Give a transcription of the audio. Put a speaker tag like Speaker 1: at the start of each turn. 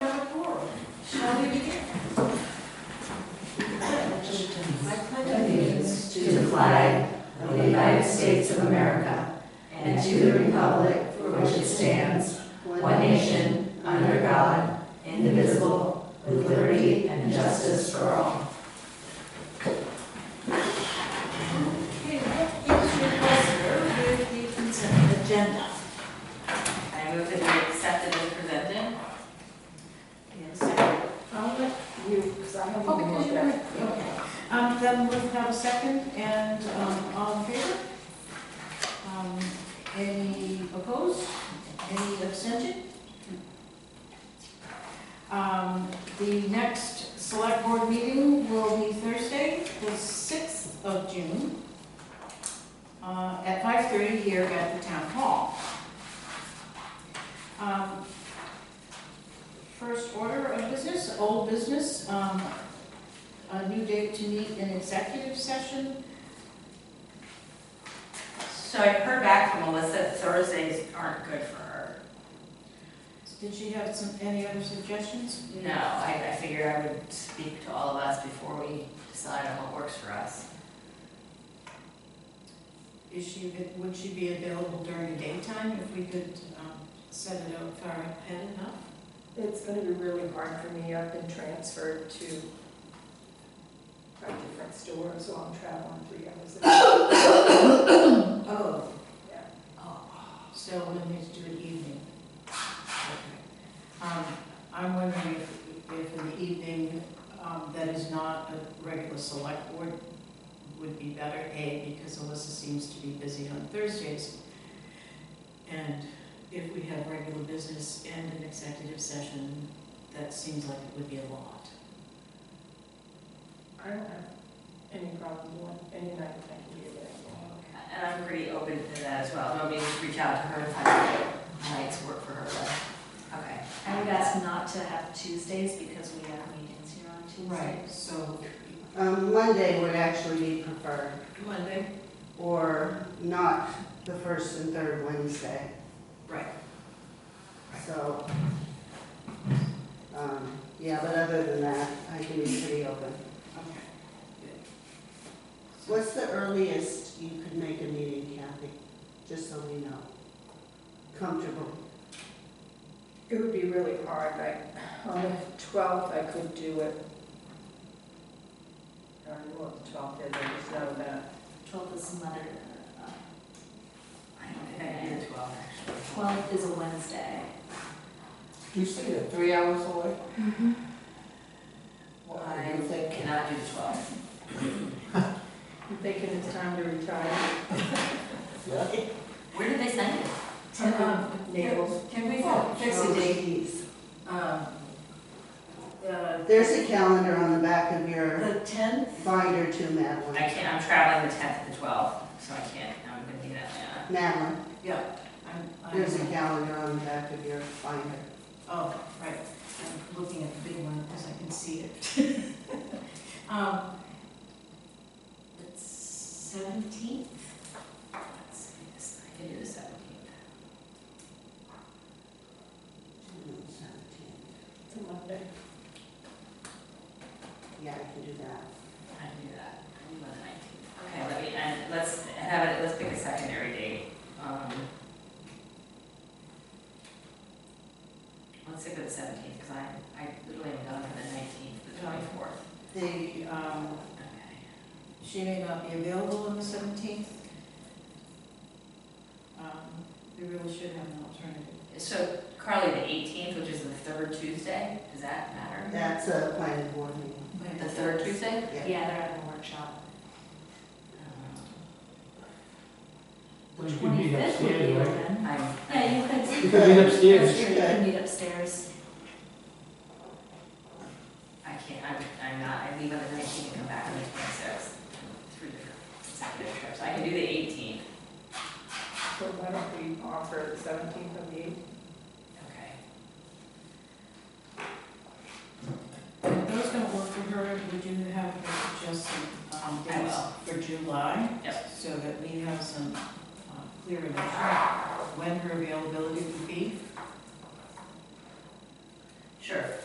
Speaker 1: indivisible, with liberty and justice for all.
Speaker 2: Okay, what is your pleasure with the consent agenda?
Speaker 3: I move that we accept it as presented.
Speaker 2: Yes. I'll let you,
Speaker 1: Because I have
Speaker 2: oh,
Speaker 1: one more
Speaker 2: because you
Speaker 1: thing.
Speaker 2: were, okay. Um, then we'll have a second and, um, all in favor? Um, any opposed? Any abstention? Um, the next select board meeting will be Thursday, the sixth of June, uh, at five thirty here at the town hall. Um, First order of business, old business, um, a new date to meet in executive session.
Speaker 3: So I heard back from Melissa that Thursdays aren't good for her.
Speaker 2: Did she have some, any other suggestions?
Speaker 3: No, I, I figured I would speak to all of us before we decide on what works for us.
Speaker 2: Is she, would she be available during the daytime if we could, um, set it up far ahead enough?
Speaker 1: It's going to be really hard for me. I've been transferred to a different store, so I'm traveling three hours. a day.
Speaker 2: Oh.
Speaker 1: Yeah.
Speaker 2: Oh, so we'll need to do it evening. Okay. Um, I'm wondering if, if in the evening, um, that is not a regular select board would be better, A, because Alyssa seems to be busy on Thursdays. And if we have regular business and an executive session, that seems like it would be a lot.
Speaker 1: I don't have any problem doing any night I can be available.
Speaker 3: And I'm pretty open to that as well. Nobody just reach out to her and find out nights work for her, but, okay.
Speaker 4: I would ask not to have Tuesdays because we have meetings here on Tuesdays.
Speaker 2: So
Speaker 5: Um, Monday would actually be preferred,
Speaker 2: Monday,
Speaker 5: or not the first and third Wednesday,
Speaker 2: right.
Speaker 5: so. Um, yeah, but other than that, I can be pretty open.
Speaker 2: Okay.
Speaker 5: What's the earliest you could make a meeting, Kathy? Just so we know. Comfortable.
Speaker 1: It would be really hard, like, on the twelfth, I could do it. I don't know what the twelfth is, I just know that.
Speaker 4: Twelfth is Mother, uh,
Speaker 3: I don't think I can do the twelve, actually.
Speaker 4: twelfth is a Wednesday.
Speaker 6: You say you're three hours away? What are you
Speaker 3: I
Speaker 6: thinking?
Speaker 3: cannot do the twelve.
Speaker 1: I'm thinking it's time to retire.
Speaker 6: Yeah?
Speaker 3: Where did they send it?
Speaker 2: um,
Speaker 1: Naples.
Speaker 2: Can we
Speaker 5: Oh,
Speaker 2: fix a date?
Speaker 5: geez.
Speaker 2: um, The
Speaker 5: There's a calendar on the back of your
Speaker 2: the 10th,
Speaker 5: binder too,
Speaker 3: I
Speaker 5: Madeline.
Speaker 3: can't, I'm traveling the tenth to the twelfth, so I can't, I'm gonna be in Atlanta.
Speaker 5: Madeline,
Speaker 2: yeah. I'm- I'm-
Speaker 5: there's a calendar on the back of your binder.
Speaker 2: Oh, right, I'm looking at the big one because I can see it. Um, The 17th,
Speaker 3: Let's see, this, I can do the seventeenth.
Speaker 5: June 17th.
Speaker 1: It's a Monday.
Speaker 5: Yeah, I can do that.
Speaker 3: I can do that, I can do the nineteenth. Okay, let me, and let's have it, let's pick a secondary date. Um, Let's stick with the seventeenth, because I, I literally am done for the nineteenth, the twenty-fourth.
Speaker 2: the, um,
Speaker 3: Okay.
Speaker 2: she may not be available on the 17th. Um, We really should have an alternative.
Speaker 3: So Carly, the eighteenth, which is the third Tuesday, does that matter?
Speaker 5: That's a planning board meeting.
Speaker 3: The third Tuesday? Um,
Speaker 4: Yeah, they're having a workshop.
Speaker 6: But you could meet
Speaker 4: Twenty-fifth would be
Speaker 6: upstairs, right?
Speaker 4: open.
Speaker 3: I'm,
Speaker 4: Yeah, you
Speaker 5: You
Speaker 4: could.
Speaker 5: could meet
Speaker 4: That's
Speaker 6: upstairs.
Speaker 4: true, You could meet upstairs.
Speaker 3: I can't, I'm, I'm not, I leave on the nineteenth and come back on the twenty-sixth. Three different consecutive trips. I can do the eighteenth.
Speaker 1: So why don't we offer the seventeenth of the eighth?
Speaker 3: Okay.
Speaker 2: If those don't work for her, we do have her suggest some um,
Speaker 3: I
Speaker 2: dates for July.
Speaker 3: Yep.
Speaker 2: So that we have some uh, clear information when her availability would be.
Speaker 3: Sure.